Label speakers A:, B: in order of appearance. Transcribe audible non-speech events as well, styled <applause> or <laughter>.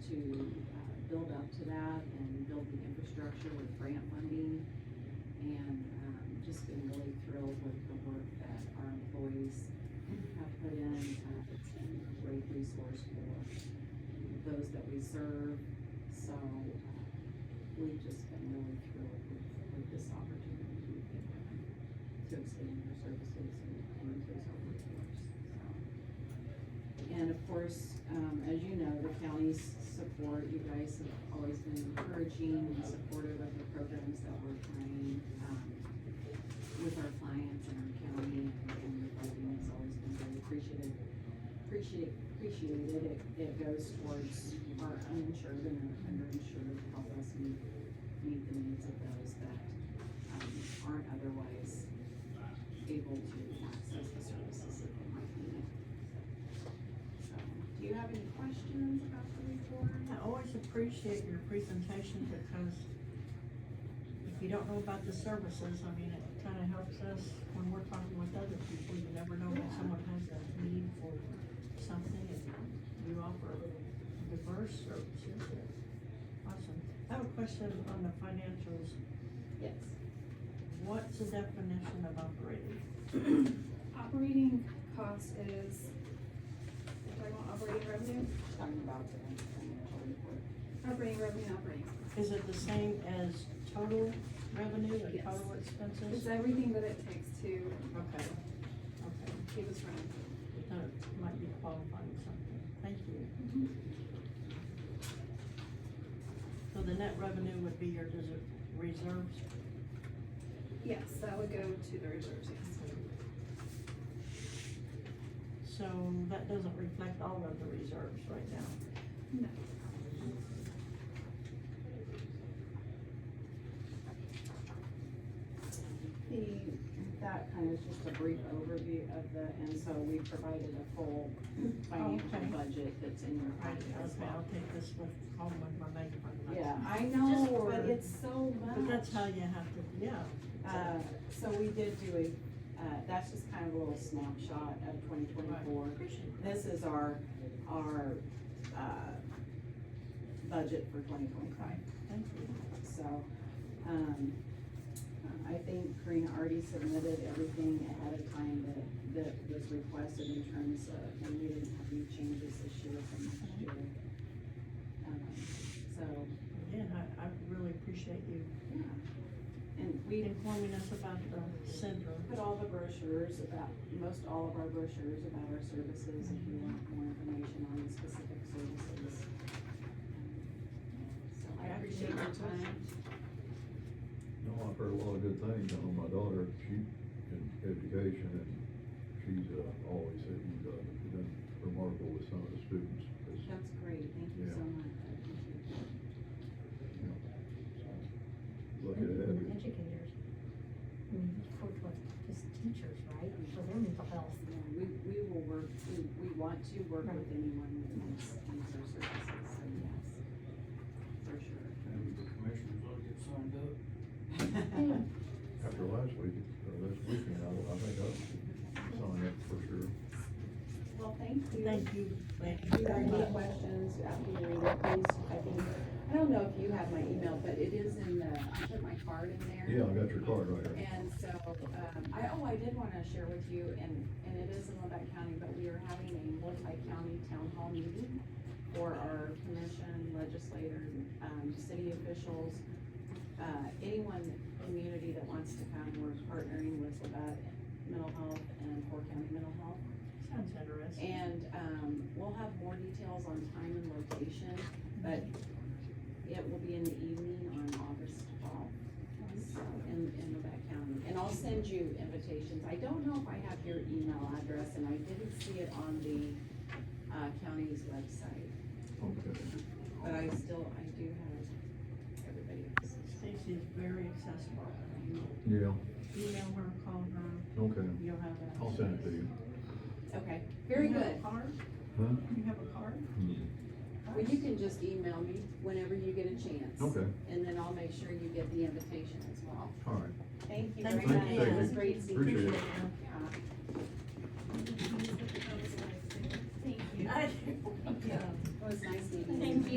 A: uh, build up to that and build the infrastructure with grant funding. And, um, just been really thrilled with the work that our employees have put in, uh, it's been a great resource for those that we serve. So, uh, we've just been really thrilled with, with this opportunity we've been given to expand our services and and increase our workforce, so. And of course, um, as you know, the county's support, you guys have always been encouraging and supportive of the programs that we're trying, um, with our clients and our county and, and the voting has always been very appreciative. Appreciate, appreciated, it, it goes towards our uninsured and our underinsured, to help us meet, meet the needs of those that, um, aren't otherwise able to access the services that they might need. So, Do you have any questions about the report?
B: I always appreciate your presentation because if you don't know about the services, I mean, it kind of helps us when we're talking with other people. You never know when
A: Yeah.
B: someone has a need for something and you offer diverse services. Awesome. I have a question on the financials.
A: Yes.
B: What's the definition of operating?
C: Operating cost is, we're talking about operating revenue,
A: Talking about the financial report.
C: operating revenue, operating. expense.
B: Is it the same as total revenue and
C: Yes.
B: total expenses?
C: It's everything that it takes to
B: Okay, okay.
C: keep us running.
B: That might be qualifying something. Thank you.
C: Mm-hmm.
B: So the net revenue would be your desert reserves?
C: Yes, that would go to the reserves, yes.
B: So that doesn't reflect all of the reserves right now.
C: No.
A: The, that kind of is just a brief overview of the, and so we provided a full financial
B: Okay.
A: budget that's in your
B: Right,
A: packet as
B: okay, I'll
A: well.
B: take this with, home with my megaphone. next
A: Yeah,
B: time.
A: I know,
B: for-
A: but it's so much.
B: But that's how you have to, yeah.
A: Uh, so we did do a, uh, that's just kind of a little snapshot of twenty twenty-four.
B: Appreciate that.
A: This is our, our, uh, budget for twenty twenty-five.
B: Thank you.
A: So, um, uh, I think Karina already submitted everything ahead of time that, that was requested in terms of, and we didn't have any changes this year from last year. Um, So,
B: Again, I, I really appreciate you
A: yeah, and we
B: informing us about the syndrome.
A: put all the brochures about, most all of our brochures about our services, if you want more information on specific services. So I appreciate your time.
D: No, I've heard a lot of good things. I know my daughter, she in education and she's uh, always said you've done, you've done remarkable with some of the students. It's,
A: That's great, thank you so
D: Yeah.
A: much. I appreciate that.
D: you know, Look at that.
E: Educators. I mean, for, for, just teachers, right, for their mental health.
A: Yeah, we, we will work, we, we want to work with anyone that needs, needs our services, so yes, for sure.
F: Maybe the commissioners ought to get signed up.
D: After last week, or last weekend, I, I think I signed up for sure.
A: Well, thank you.
B: Thank you. Thank
A: If you have any questions after you read it, please, I think, I don't know if you have my email, but it is in the, I put my card in there.
D: Yeah, I got your card right here.
A: And so, um, I, oh, I did wanna share with you, and, and it is in Lebec County, but we are having a multi-county town hall meeting for our commission, legislators, um, city officials, uh, anyone, community that wants to come, we're partnering with Lebec Mental Health and Core County Mental Health.
B: Sounds interesting.
A: And, um, we'll have more details on time and location, but it will be in the evening on August twelfth. In, in Lebec County, and I'll send you invitations, I don't know if I have your email address, and I didn't see it on the, uh, county's website,
D: Okay.
A: but I still, I do have everybody else's.
B: Stacy is very accessible.
D: Yeah,
B: Email her, call her,
D: okay.
B: you'll have that.
D: I'll send it to you.
A: Okay, very
B: You have a
A: good,
B: card?
D: Huh?
B: You have a card?
A: well, you can just email me whenever you get a chance.
D: Okay,
A: And then I'll make sure you get the invitation as well.
D: all right.
A: Thank you
B: Thank
A: very
B: you,
A: much, it
B: Pam.
A: was great seeing you.
D: Appreciate it.
A: Yeah.
C: Thank you.
B: <laughs> I